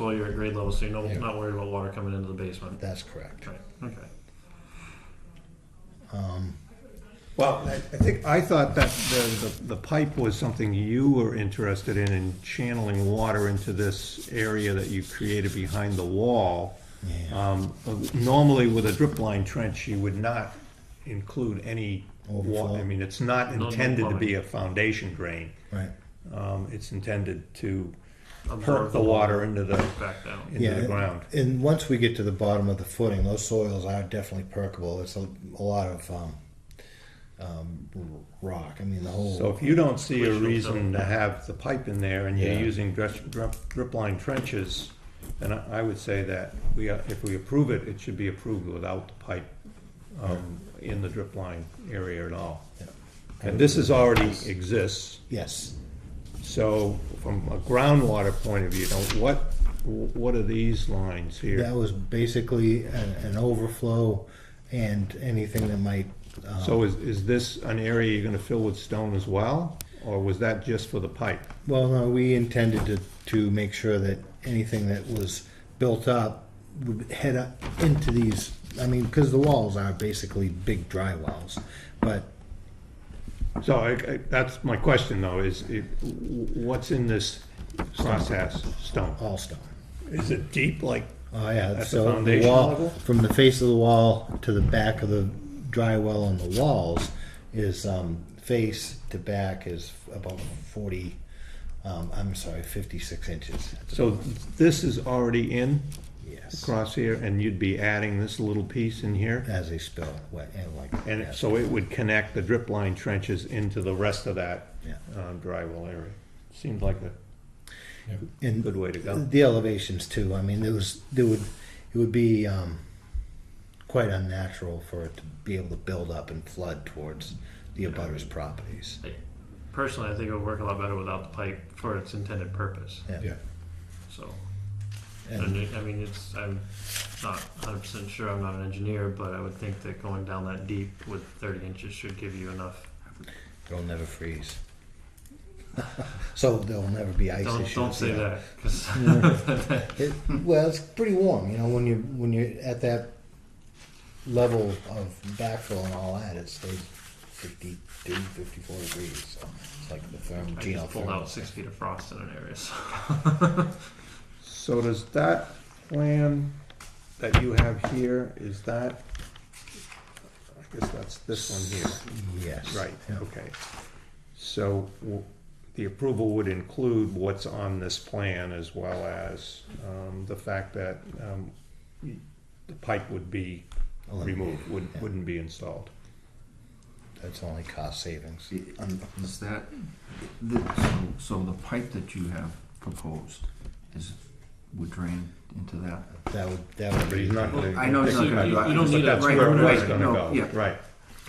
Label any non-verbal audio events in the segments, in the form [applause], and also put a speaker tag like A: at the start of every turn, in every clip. A: Well, you're at grade level, so you're no-
B: Yeah.
A: not worried about water coming into the basement.
B: That's correct.
A: Right, okay.
C: Well, I I think, I thought that the, the- the pipe was something you were interested in, in channeling water into this area that you created behind the wall.
B: Yeah.
C: Um, Normally, with a drip line trench, you would not include any water.
B: Overflow.
C: I mean, it's not
A: No, no
C: intended to be
A: plumbing.
C: a foundation drain.
B: Right.
C: Um, It's intended to
A: Absorb
C: perk the water into the,
A: Back down.
C: into the ground.
B: And once we get to the bottom of the footing, those soils are definitely perkable. It's a, a lot of um, um, r- rock. I mean, the whole.
C: So if you don't see a
A: Which will
C: reason to have the pipe in there and you're
B: Yeah.
C: using drip, drip, drip line trenches, then I I would say that we, uh, if we approve it, it should be approved without the pipe, um, in the drip line area at all.
B: Yeah.
C: And this is already exists,
B: yes.
C: so from a groundwater point of view, now what, what are these lines
B: That
C: here?
B: was basically an, an overflow and anything that might. Um,
C: So is, is this an area you're gonna fill with stone as well, or was that just for the pipe?
B: Well, no, we intended to, to make sure that anything that was built up would head up into these, I mean, because the walls are basically big dry wells, but
C: So I, I, that's my question though, is it, what's in this process stone?
B: all stone.
C: Is it deep like?
B: Oh, yeah.
C: At the
B: so
C: foundation
B: wall,
C: level?
B: From the face of the wall to the back of the dry well on the walls is, um, face to back is about forty, um, I'm sorry, fifty-six inches.
C: So this is already in
B: Yes,
C: across here and you'd be adding this little piece in here?
B: as a spill, wet and like.
C: And
B: yes.
C: so it would connect the drip line trenches into the rest of that
B: Yeah.
C: uh, drywall area. Seemed like a
B: And
C: good way to go.
B: The elevations too. I mean, there was there would it would be um, quite unnatural for it to be able to build up and flood towards the abutters' properties.
A: Personally, I think it would work a lot better without the pipe for its intended purpose,
B: Yeah.
A: so. And
B: And
A: it- I mean, it's, I'm not hundred percent sure, I'm not an engineer, but I would think that going down that deep with thirty inches should give you enough.
B: it'll never freeze. [laughs] so there'll never be ice
A: Don't,
B: issues.
A: don't say
B: yeah.
A: that, 'cause- [laughs]
B: It, well, it's pretty warm, you know, when you when you're at that level of backfill and all that, it stays 52, 54 degrees. So it's like the therm,
A: I
B: geothermal.
A: just pulled out six feet of frost in an area, so.
C: So does that plan that you have here, is that, I guess that's this one here?
B: Yes.
C: Right,
B: Yeah.
C: okay. So w- the approval would include what's on this plan as well as um, the fact that um, y- the pipe would be removed, wouldn't
B: yeah.
C: wouldn't be installed.
B: That's only cost savings.
C: um,
D: Is that, the- so, so the pipe that you have proposed is, would drain into that?
B: That would, that would
C: But he's
B: be,
C: not gonna.
D: I know it's not gonna
A: You-
D: go. out.
A: you don't
C: But
A: need a-
C: that's
A: right,
C: where
A: right,
C: it's gonna
D: no,
C: go,
D: yeah.
C: Right.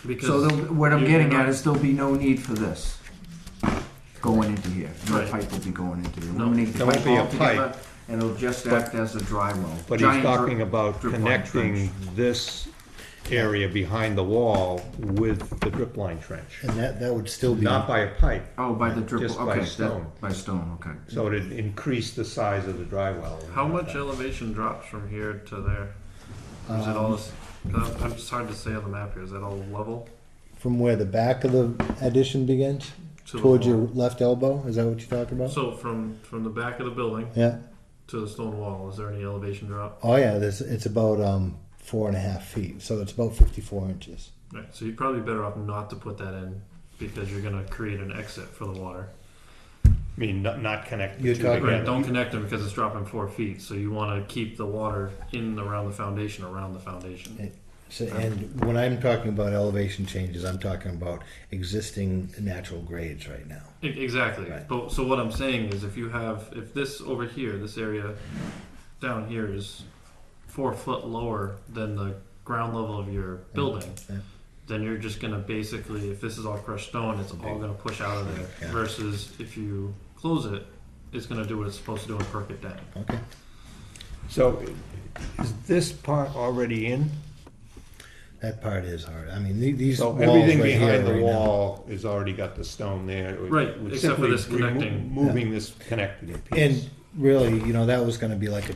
D: So
A: Because,
D: there'll- what I'm
A: you-
D: getting
A: you're
D: at
A: not-
D: is there'll be no need for this going into here. No
A: Right.
D: pipe will be going into here. Eliminate the
C: There won't
D: pipe
C: be a
D: altogether,
C: pipe.
D: And it'll just act as a dry well.
C: But
D: Giant
C: he's talking
D: drip-
C: about
D: drip line
C: connecting
D: trench.
C: this area behind the wall with the drip line trench,
B: and that, that would still be,
C: not by a pipe.
D: Oh, by the drip,
C: Just by
D: okay,
C: stone.
D: that, by stone, okay.
C: So it'd increase the size of the dry well.
A: how much elevation drops from here to there? Or Is it all, this- I'm I'm just hard to say on the map here, is that all level?
B: from where the back of the addition begins,
A: to the
B: towards your
A: wall?
B: left elbow, is that what you're talking about?
A: So from, from the back of the building
B: Yeah,
A: to the stone wall, is there any elevation drop?
B: oh yeah, this, it's about, um, four and a half feet, so it's about fifty-four inches.
A: Right, so you're probably better off not to put that in because you're gonna create an exit for the water.
C: I mean, not, not connect the
B: You're
C: two
B: talking-
C: together.
A: Right, don't connect them because it's dropping four feet, so you wanna keep the water in around the foundation, around the foundation.
B: So, and when I'm talking about elevation changes, I'm talking about existing natural grades right now.
A: E- Exactly,
B: Right.
A: but, so what I'm saying is if you have, if this over here, this area down here is four foot lower than the ground level of your building,
B: Yeah.
A: then you're just gonna basically, if this is all crushed stone, it's all gonna push out of there.
B: Yeah.
A: Versus if you close it, it's gonna do what it's supposed to do and perk it down.
B: Okay.
C: So is this part already in?
B: That part is hard, I mean, the- these
C: So
B: walls
C: everything
B: right here
C: behind the
B: right now-
C: wall is already got the stone there. It would-
A: Right,
C: would
A: except for
C: simply
A: this
C: remo-
A: connecting.
C: Moving this connected piece.
B: And really, you know, that was gonna be like a